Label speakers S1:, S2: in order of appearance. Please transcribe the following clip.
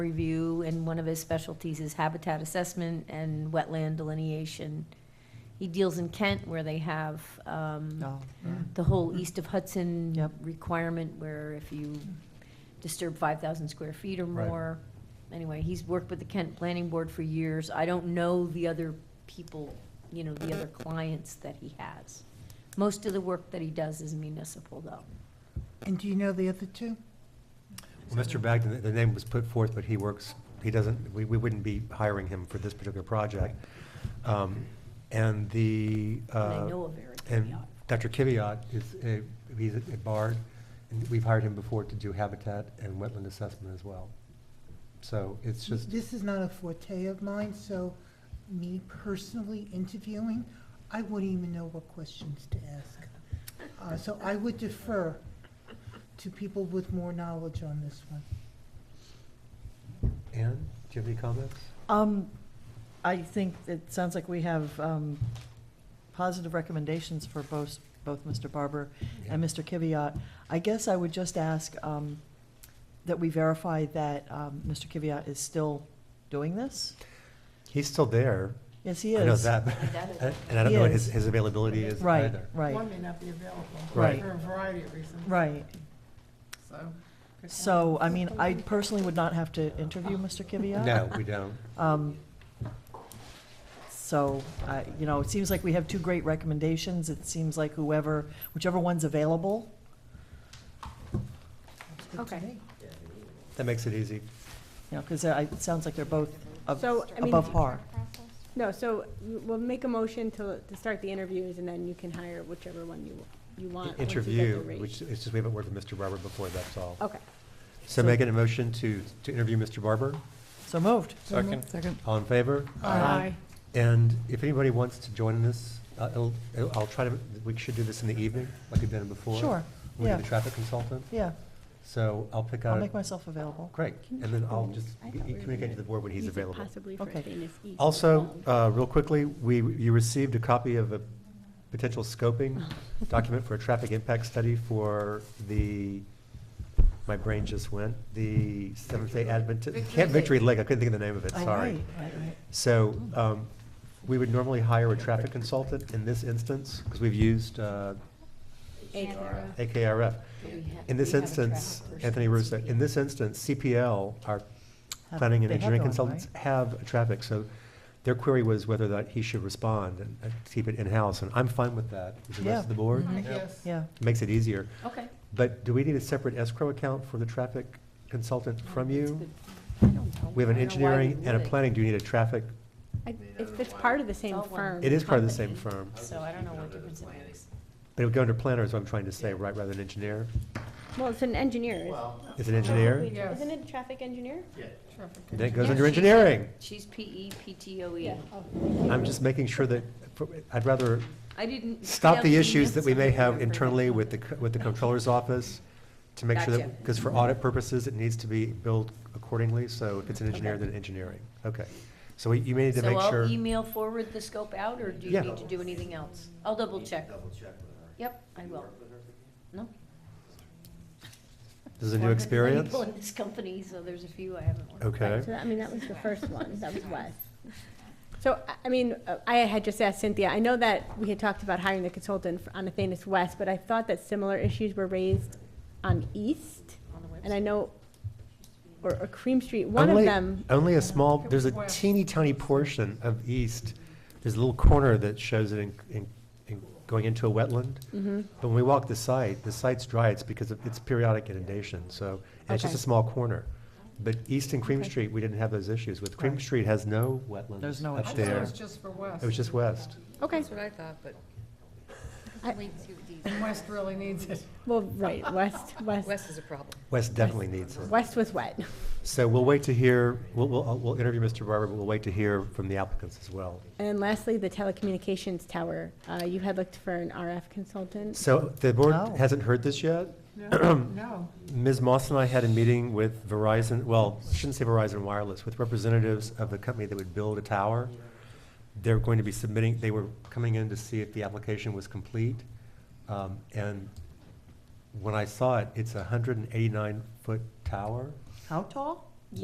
S1: review, and one of his specialties is habitat assessment and wetland delineation. He deals in Kent where they have um,
S2: Oh.
S3: No.
S1: the whole east of Hudson
S3: Yep.
S1: requirement where if you disturb 5,000 square feet or
S4: Right.
S1: more. Anyway, he's worked with the Kent Planning Board for years. I don't know the other people, you know, the other clients that he has. Most of the work that he does is municipal, though.
S3: And do you know the other two?
S4: Well, Mr. Bagden, the name was put forth, but he works, he doesn't, we, we wouldn't be hiring him for this particular project. Um, And the,
S1: And I
S4: uh,
S1: know of Eric
S4: and
S1: Kiviat.
S4: Dr. Kiviat is, a- he's at Bard, and we've hired him before to do habitat and wetland assessment as well. So it's just,
S3: This is not a forte of mine, so me personally interviewing, I wouldn't even know what questions to ask. Uh, So I would defer to people with more knowledge on this one.
S4: Ann, do you have any comments?
S2: Um, I think it sounds like we have, um, positive recommendations for both, both Mr. Barber and Mr. Kiviat. I guess I would just ask, um, that we verify that, um, Mr. Kiviat is still doing this?
S4: He's still there.
S2: Yes, he is.
S4: I know that,
S1: doubt it.
S4: and I don't know what his,
S2: Yes.
S4: his availability is
S2: Right,
S4: either.
S2: right,
S5: One may not be available
S4: Right.
S5: for a variety of reasons,
S2: right.
S5: so.
S2: So, I mean, I personally would not have to interview Mr. Kiviat.
S4: No, we don't.
S2: Um, So, I- you know, it seems like we have two great recommendations. It seems like whoever, whichever one's available,
S3: That's good to
S1: Okay.
S3: me.
S4: That makes it easy.
S2: you know, because it sounds like they're both ab-
S6: So, I mean,
S2: above par.
S6: no, so we'll make a motion to, to start the interviews, and then you can hire whichever one you, you want. once you get the
S4: Interview,
S6: rate.
S4: which, it's just we haven't worked with Mr. Barber before, that's all.
S6: Okay.
S4: So
S2: So-
S4: making a motion to, to interview Mr. Barber,
S2: So moved.
S3: So moved.
S2: Second.
S4: all in favor?
S2: Aye.
S4: And if anybody wants to join in this, uh, it'll- it'll- I'll try to, we should do this in the evening, like we've done it before.
S2: Sure,
S4: We do
S2: yeah.
S4: the traffic consultant,
S2: yeah.
S4: so I'll pick
S2: I'll
S4: out,
S2: make myself available.
S4: great, and then I'll just
S6: I thought we were doing
S4: communicate to the board when he's
S6: Use it
S4: available.
S6: Possibly for
S2: Okay.
S6: Dana's East.
S4: Also, uh, real quickly, we, you received a copy of a potential scoping document for a traffic impact study for the, my brain just went, the Seventh-day Adventist, Camp Victory Lake, I couldn't think of the name of it,
S2: Oh,
S4: sorry.
S2: right, right, right.
S4: So, um, we would normally hire a traffic consultant in this instance, because we've used, uh, AKRF. In this instance, Anthony Russo, in this instance, CPL, our
S2: Have-
S4: planning and
S2: they have their
S4: engineering
S2: own,
S4: consultants
S2: right?
S4: have traffic, so their query was whether that he should respond and uh, keep it in-house, and I'm fine with that, with the
S2: Yeah.
S4: rest of the board,
S2: Mhm.
S5: Yes.
S2: Yeah,
S4: makes it easier.
S1: Okay.
S4: But do we need a separate escrow account for the traffic consultant from you? We have an engineering and a planning, do you need a traffic?
S6: I- If it's part of the same
S1: It's all one.
S6: firm.
S4: It is part of the same
S1: Company.
S4: firm,
S1: So I don't know what difference it makes.
S4: but it would go under planner is what I'm trying to say, right, rather than engineer?
S6: Well, it's an engineer. is-
S4: Is it engineer?
S5: Yes.
S6: Isn't it a traffic engineer?
S5: Traffic.
S4: Then it goes
S1: Yeah,
S4: under
S1: she's a-
S4: engineering.
S1: She's E PE, PTOE.
S6: Yeah. Oh.
S4: I'm just making sure that, I'd rather
S1: I didn't.
S4: stop the issues that we may have internally with the, co- with the comptroller's office to make sure that,
S1: Gotcha.
S4: because for audit purposes, it needs to be billed accordingly, so if it's an engineer, then engineering, okay. So we- you may need to
S1: So
S4: make sure,
S1: I'll email forward the scope out, or do you
S4: Yeah.
S1: need to do anything else? I'll double check.
S7: Double check with her.
S1: Yep, I will. No.
S4: this is a new experience?
S1: People in this company, so there's a few I haven't worked with.
S4: Okay,
S8: So, that- I mean, that was the first one, that was Wes.
S6: So, I- I mean, uh, I had just asked Cynthia, I know that we had talked about hiring the consultant for- on Athanas West, but I thought that similar issues were raised on East,
S1: On the
S6: and I
S1: website.
S6: know, or or Cream Street, one of
S4: Only-
S6: them,
S4: only a small, there's a
S5: West.
S4: teeny tiny portion of east, there's a little corner that shows it in, in, in going into a wetland.
S6: Mhm.
S4: But when we walk the site, the site's dry, it's because of, it's periodic inundation, so, and it's just a
S6: Okay.
S4: small corner. But east and Cream
S6: Okay.
S4: Street, we didn't have those issues with. Cream
S2: Right.
S4: Street has no wetlands
S2: There's no
S4: up
S2: wetlands.
S5: I thought it
S4: there.
S5: was just for West.
S4: It was just west.
S6: okay.
S9: That's what I thought, but
S6: I-
S9: wait and see what these,
S5: And West really needs it.
S6: Well, right, West, West,
S9: West is a problem.
S4: West definitely needs it.
S6: West was wet.
S4: So we'll wait to hear, we'll, we'll, uh, we'll interview Mr. Barber, but we'll wait to hear from the applicants as well.
S6: And then lastly, the telecommunications tower, uh, you had looked for an RF consultant.
S4: So the board
S2: Oh.
S4: hasn't heard this yet.
S5: No, no.
S4: Ms. Moss and I had a meeting with Verizon, well, I shouldn't say Verizon Wireless, with representatives of the company that would build a tower. They're going to be submitting, they were coming in to see if the application was complete. Um, And when I saw it, it's a hundred and eighty-nine foot tower.
S2: how tall?